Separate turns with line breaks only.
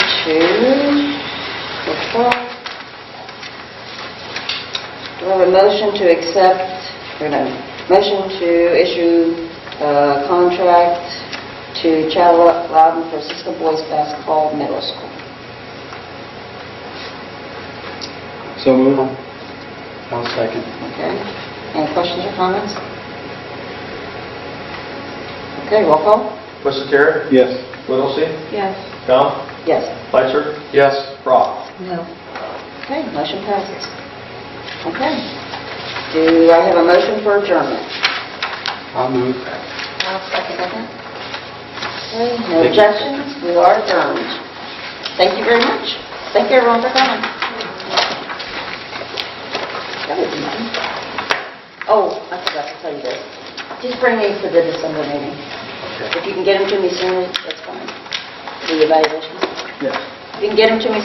two, four, four. Do I have a motion to accept, or no, motion to issue uh, contract to Chad Loudon for Cisco Boys Basketball Middle School?
So move. I'll second.
Okay. Any questions or comments? Okay, roll call?
Mr.
Yes.
Whittlesey?
Yes.
Gump?
Yes.
Fletcher? Yes. Brock?
No.
Okay, motion passes. Okay. Do I have a motion for adjournment?
I'll move.
I'll second that. Okay, no objections, we are adjourned. Thank you very much. Thank you everyone for coming. That was nice. Oh, I forgot to tell you this. Just bring these to the December meeting. If you can get them to me sooner, that's fine. The evaluations.
Yes.
If you can get them to me